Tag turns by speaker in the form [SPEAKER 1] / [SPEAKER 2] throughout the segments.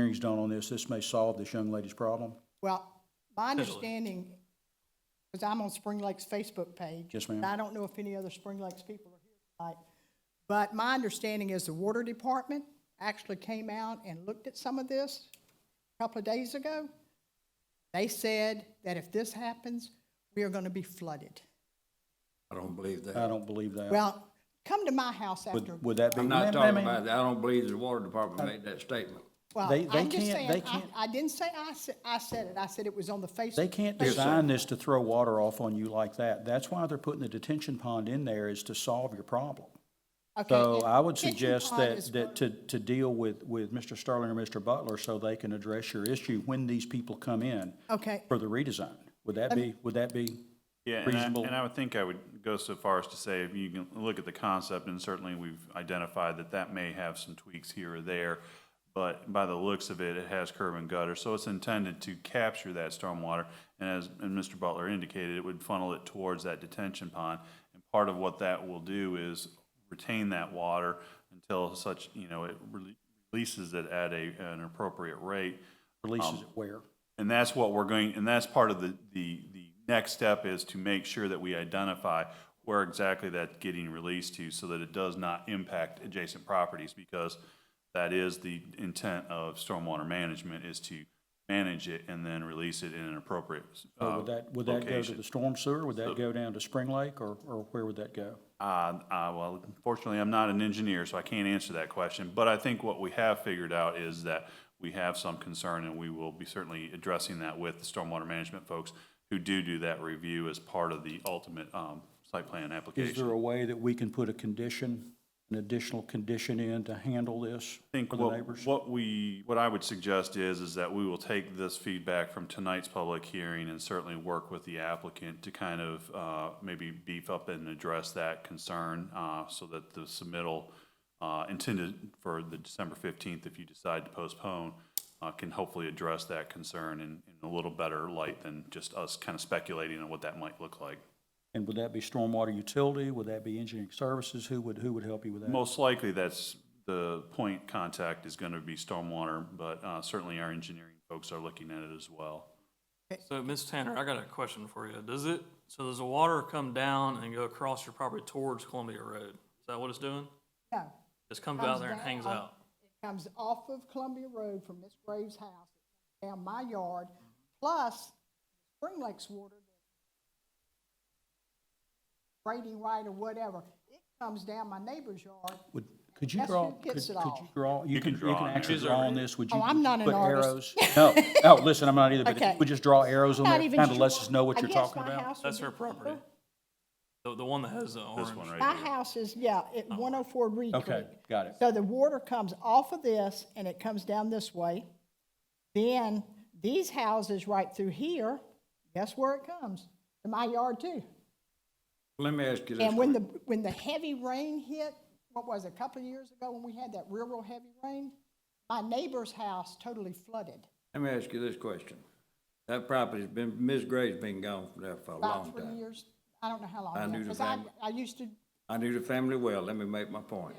[SPEAKER 1] hearings done on this, this may solve this young lady's problem?
[SPEAKER 2] Well, my
[SPEAKER 3] Potentially.
[SPEAKER 2] understanding, because I'm on Spring Lake's Facebook page.
[SPEAKER 1] Yes, ma'am.
[SPEAKER 2] and I don't know if any other Spring Lakes people are here tonight. But my understanding is the water department actually came out and looked at some of this a couple of days ago. They said that if this happens, we are going to be flooded.
[SPEAKER 4] I don't believe that.
[SPEAKER 1] I don't believe that.
[SPEAKER 2] Well, come to my house after.
[SPEAKER 1] Uh, Would, would that be?
[SPEAKER 4] I'm
[SPEAKER 1] ma'am,
[SPEAKER 4] not talking
[SPEAKER 1] ma'am,
[SPEAKER 4] about that. I don't believe the water department made that statement.
[SPEAKER 2] Well,
[SPEAKER 1] They- they
[SPEAKER 2] I'm just
[SPEAKER 1] can't- they
[SPEAKER 2] saying, I,
[SPEAKER 1] can't-
[SPEAKER 2] I didn't say I said, I said it. I said it was on the Facebook.
[SPEAKER 1] They can't
[SPEAKER 2] page.
[SPEAKER 1] design this to throw water off on you like that. That's why they're putting the detention pond in there is to solve your problem.
[SPEAKER 2] Okay,
[SPEAKER 1] So
[SPEAKER 2] and
[SPEAKER 1] I would
[SPEAKER 2] kitchen
[SPEAKER 1] suggest
[SPEAKER 2] pond
[SPEAKER 1] that,
[SPEAKER 2] is
[SPEAKER 1] that
[SPEAKER 2] one-
[SPEAKER 1] to, to deal with, with Mr. Sterling or Mr. Butler so they can address your issue when these people come in
[SPEAKER 2] Okay.
[SPEAKER 1] for the redesign. Would that be, would that be?
[SPEAKER 3] Yeah, and I,
[SPEAKER 1] reasonable-
[SPEAKER 3] and I would think I would go so far as to say, if you can look at the concept, and certainly we've identified that that may have some tweaks here or there, but by the looks of it, it has curb and gutter, so it's intended to capture that stormwater. And as, and Mr. Butler indicated, it would funnel it towards that detention pond. And part of what that will do is retain that water until such, you know, it rele- releases it at a, an appropriate rate. um,
[SPEAKER 1] Releases it where?
[SPEAKER 3] And that's what we're going, and that's part of the, the, the next step is to make sure that we identify where exactly that's getting released to so that it does not impact adjacent properties because that is the intent of stormwater management is to manage it and then release it in an appropriate,
[SPEAKER 1] Or
[SPEAKER 3] uh,
[SPEAKER 1] Would that, would that go to
[SPEAKER 3] location.
[SPEAKER 1] the storm sewer? Would that go down to Spring Lake or, or where would that go?
[SPEAKER 3] Uh, uh, well, fortunately, I'm not an engineer, so I can't answer that question. But I think what we have figured out is that we have some concern, and we will be certainly addressing that with the stormwater management folks who do do that review as part of the ultimate um, site plan
[SPEAKER 1] Is
[SPEAKER 3] application.
[SPEAKER 1] there a way that we can put a condition, an additional condition in to handle this
[SPEAKER 3] I think
[SPEAKER 1] for the
[SPEAKER 3] what-
[SPEAKER 1] neighbors?
[SPEAKER 3] What we, what I would suggest is, is that we will take this feedback from tonight's public hearing and certainly work with the applicant to kind of uh, maybe beef up and address that concern uh, so that the submittal uh, intended for the December 15th, if you decide to postpone, uh, can hopefully address that concern in in a little better light than just us kind of speculating on what that might look like.
[SPEAKER 1] And would that be stormwater utility? Would that be engineering services? Who would, who would help you with that?
[SPEAKER 3] Most likely, that's, the point contact is going to be stormwater, but uh, certainly our engineering folks are looking at it as well.
[SPEAKER 5] So, Ms. Tanner, I got a question for you. Does it, so does the water come down and go across your property towards Columbia Road? Is that what it's doing?
[SPEAKER 2] No.
[SPEAKER 5] Just comes
[SPEAKER 2] Comes
[SPEAKER 5] out there and
[SPEAKER 2] down.
[SPEAKER 5] hangs out?
[SPEAKER 2] comes off of Columbia Road from Miss Graves' house, down my yard, plus Spring Lake's water, Brady White or whatever, it comes down my neighbor's yard.
[SPEAKER 1] Would, could you
[SPEAKER 2] That's
[SPEAKER 1] draw,
[SPEAKER 2] who
[SPEAKER 1] could,
[SPEAKER 2] gets
[SPEAKER 1] could
[SPEAKER 2] it
[SPEAKER 1] you
[SPEAKER 2] all.
[SPEAKER 1] draw, you can, you
[SPEAKER 3] draw
[SPEAKER 1] can
[SPEAKER 3] on
[SPEAKER 1] actually
[SPEAKER 3] there.
[SPEAKER 1] draw on this? Would you?
[SPEAKER 2] Oh, I'm not an
[SPEAKER 1] put
[SPEAKER 2] artist.
[SPEAKER 1] arrows? No, no, listen, I'm not either, but if
[SPEAKER 2] Okay.
[SPEAKER 1] you would just draw arrows on there,
[SPEAKER 2] Not
[SPEAKER 1] kind
[SPEAKER 2] even
[SPEAKER 1] of
[SPEAKER 2] sure.
[SPEAKER 1] lets us know what
[SPEAKER 2] I
[SPEAKER 1] you're
[SPEAKER 2] guess
[SPEAKER 1] talking
[SPEAKER 2] my
[SPEAKER 1] about.
[SPEAKER 2] house would
[SPEAKER 5] That's
[SPEAKER 2] be
[SPEAKER 5] her property.
[SPEAKER 2] cheaper.
[SPEAKER 5] The, the one that has the orange?
[SPEAKER 3] This one right
[SPEAKER 2] My
[SPEAKER 3] here.
[SPEAKER 2] house is, yeah, at one oh four Reed Creek.
[SPEAKER 1] Okay, got it.
[SPEAKER 2] So the water comes off of this and it comes down this way. Then these houses right through here, guess where it comes? To my yard too.
[SPEAKER 4] Let me ask you this.
[SPEAKER 2] And when the, when the heavy rain hit, what was it, a couple of years ago when we had that real, real heavy rain? My neighbor's house totally flooded,
[SPEAKER 4] Let me ask you this question. That property's been, Ms. Gray's been gone from there for a long
[SPEAKER 2] about three
[SPEAKER 4] time.
[SPEAKER 2] years, I don't know how long.
[SPEAKER 4] I
[SPEAKER 2] now,
[SPEAKER 4] knew the
[SPEAKER 2] 'cause I,
[SPEAKER 4] fam-
[SPEAKER 2] I used to,
[SPEAKER 4] I knew the family well, let me make my point.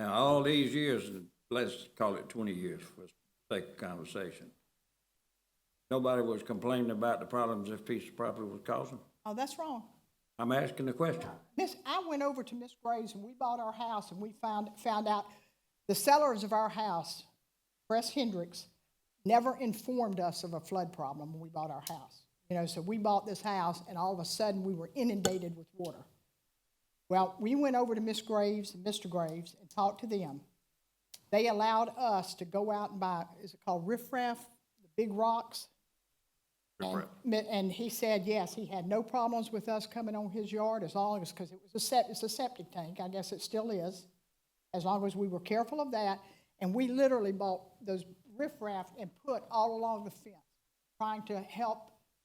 [SPEAKER 4] Now, all these years, let's call it twenty years for the sake of conversation. Nobody was complaining about the problems this piece of property was causing.
[SPEAKER 2] oh, that's wrong.
[SPEAKER 4] I'm asking the question.
[SPEAKER 2] Miss, I went over to Miss Gray's and we bought our house and we found, found out the sellers of our house, Press Hendricks, never informed us of a flood problem when we bought our house. You know, so we bought this house and all of a sudden we were inundated with water. Well, we went over to Miss Graves and Mr. Graves and talked to them. They allowed us to go out and buy, is it called riffraff, the big rocks? And- mi- And he said, yes, he had no problems with us coming on his yard as long as, because it was a sep, it's a septic tank, I guess it still is, as long as we were careful of that. And we literally bought those riffraff and put all along the fence, trying to help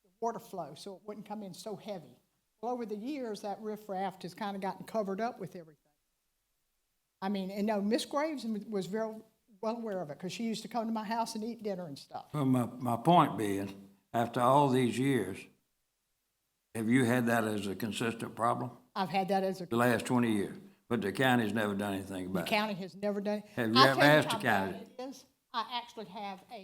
[SPEAKER 2] the water flow so it wouldn't come in so heavy. Well, over the years, that riffraff has kind of gotten covered up with everything. I mean, and no, Miss Graves was very well aware of it, because she used to come to my house and eat dinner and stuff.
[SPEAKER 4] Well, my, my point being, after all these years, have you had that as a consistent problem?
[SPEAKER 2] I've had that as a
[SPEAKER 4] The last twenty years, but the county's never done anything
[SPEAKER 2] The
[SPEAKER 4] about it.
[SPEAKER 2] county has never done.
[SPEAKER 4] Have you
[SPEAKER 2] I'll
[SPEAKER 4] ever
[SPEAKER 2] tell
[SPEAKER 4] asked the
[SPEAKER 2] how bad
[SPEAKER 4] county?
[SPEAKER 2] it is. I actually have a